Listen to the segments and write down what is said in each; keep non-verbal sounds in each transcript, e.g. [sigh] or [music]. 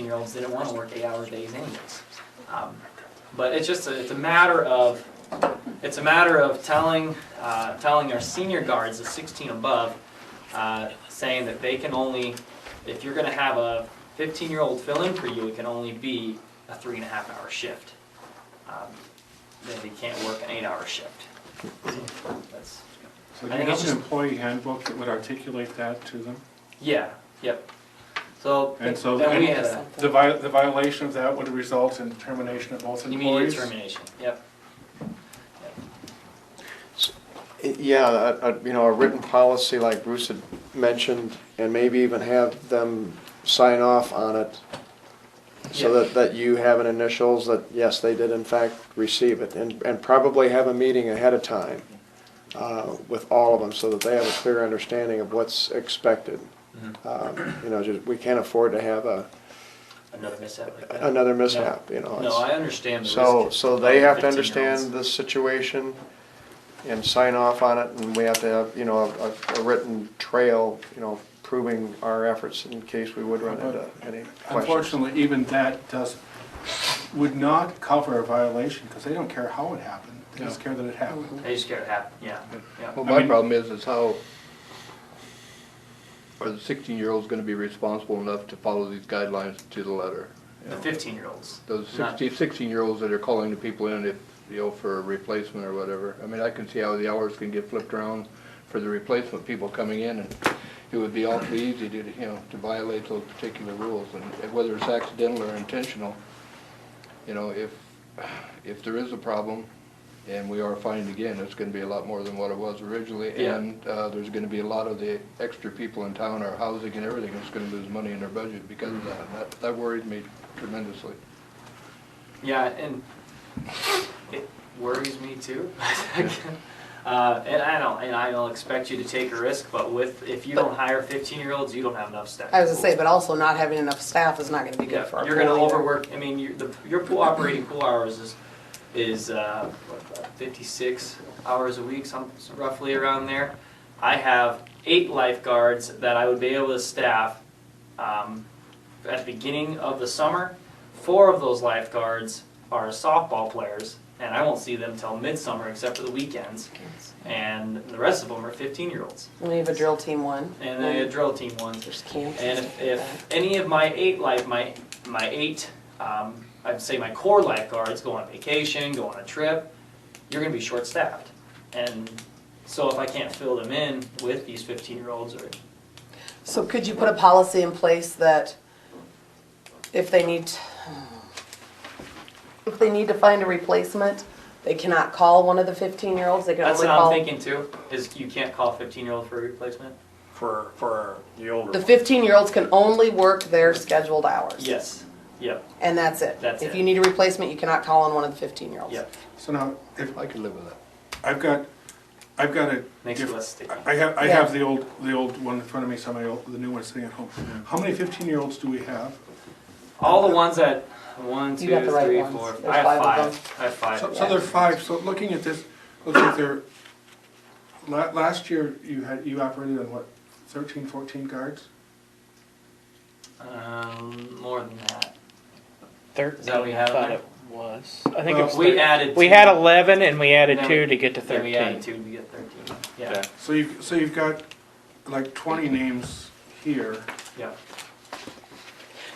eighteen-year-olds didn't wanna work eight-hour days anyways. Um, But it's just, a- it's a matter of, it's a matter of telling, uh, telling our senior guards, the sixteen above, uh, saying that they can only, if you're gonna have a fifteen-year-old fill-in for you, it can only be a three and a half hour shift. Um, That they can't work an eight-hour shift. That's, I So do you think it's have an just- employee handbook that would articulate that to them? yeah, yep. So, And so then we then- had a, The vi, the violation of that would result in termination of both immediate employees? termination, yep. Yeah, a- a- you know, a written policy like Bruce had mentioned, and maybe even have them sign off on it so Yeah. that, that you have an initials that, yes, they did in fact receive it, and, and probably have a meeting ahead of time uh, with all of them so that they have a clear understanding of what's expected. Mhm. Um, You know, just, we can't afford to have a, Another mishap like that. another mishap, you know. No, Oh, it's- I understand the risk. so, so they have to 15-year-olds. understand the situation and sign off on it, and we have to have, you know, a, a written trail, you know, proving our efforts in case we would run into any questions. Unfortunately, even that does, would not cover a violation, because they don't care how it happened, they just care that it happened. They just gotta have, yeah, yeah. Well, I my mean- problem is, is how are the sixteen-year-olds gonna be responsible enough to follow these guidelines to the letter? you The know? fifteen-year-olds. Those Not- 16 sixteen-year-olds that are calling the people in if, you know, for a replacement or whatever. I mean, I can see how the hours can get flipped around for the replacement people coming in, and it would be awfully easy to, you know, to violate those particular rules, and whether it's accidental or intentional, you know, if, if there is a problem, and we are fined again, it's gonna be a lot more than what it was originally, Yeah. and, uh, there's gonna be a lot of the extra people in town, our housing and everything, is gonna lose money in their budget because of that, that, that worries me tremendously. Yeah, and it worries me too. [laughs] Uh, and I don't, and I don't expect you to take a risk, but with, if you don't hire fifteen-year-olds, you don't have enough staff. I was gonna say, but also not having enough staff is not gonna be Yeah, good for our You're gonna pool either. overwork, I mean, your, the, your pool operating pool hours is, is, uh, what, about fifty-six hours a week, some, roughly around there. I have eight lifeguards that I would be able to staff, um, at the beginning of the summer. Four of those lifeguards are softball players, and I won't see them till midsummer except for the weekends. And the rest of them are fifteen-year-olds, We have a drill team one. and then a drill team one. There's camps. And if, stuff like if any of my eight life, my, my eight, um, I'd say my core lifeguards go on vacation, go on a trip, you're gonna be short-staffed. And so if I can't fill them in with these fifteen-year-olds or, that. So could you put a policy in place that if they need, if they need to find a replacement, they cannot call one of the fifteen-year-olds, they can that's only what I'm call. thinking too, is you can't call a fifteen-year-old for a replacement? For, for the older The ones. fifteen-year-olds can only work their scheduled hours. Yes, yep, And that's it. That's If it. you need a replacement, you cannot call on one of the fifteen-year-olds. yep, So now, if, I could live with that. I've got, I've got a. makes it diff- less sticky. I have, I Yeah. have the old, the old one in front of me, some of the old- the new one sitting at home. Mm-hmm. How many fifteen-year-olds do we have? All the ones that, one, two, You got the right three, ones. four, There's I have five of five, I have five. So, so there are five, so looking at this, looks like there, la- last year you had, you operated on what, thirteen, fourteen guards? Um, more than that. Is Thirteen, that what we I have in thought there? it was. I think it Well, was. We thir- added. We two. had eleven and we added Then we- two to get to Then we added thirteen. two, we get thirteen, yeah, Yeah. So you've, so you've got like twenty names here. yeah.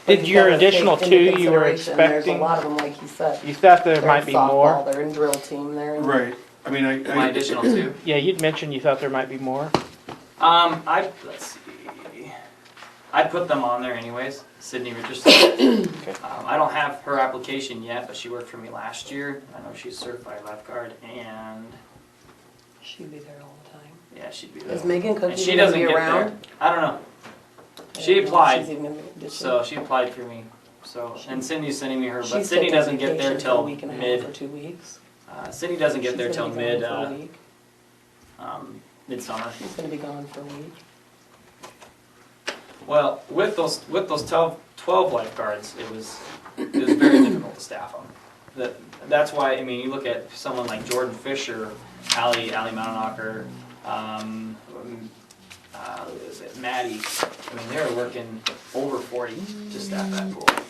But Did you your gotta take additional into two you were consideration, There's a expecting? lot of them, like you said. You thought there They're might be in softball, more? They're in drill team, they're in. Right, I mean, I. My I- additional two. [clears throat] Yeah, you'd mentioned you thought there might be more. Um, I let's see. I put them on there anyways. Sydney [coughs] Richardson. um, I don't have her application yet, but she worked for me last year. I know she's certified lifeguard, and She'd be there all the time. yeah, she'd be Is there. Megan And Cookie she gonna doesn't be get around? there. I don't know. I She don't know if she's applied, even gonna be- did she? so she applied for me. So and Cindy's sending me her, but She's Sydney taking doesn't get there vacation for a till week and a half Or mid. two weeks. Uh, Sydney doesn't get She's there till gonna be mid gone for a uh, week. um, midsummer. She's gonna be gone for a week. Well, with those, with those 12 12 lifeguards, it was, it was very difficult to staff them. That, that's why, I mean, you look at someone like Jordan Fisher, Ally, Ally Mountenacker, um, um, uh, who is it, Maddie, I mean, they were working over forty to staff that pool.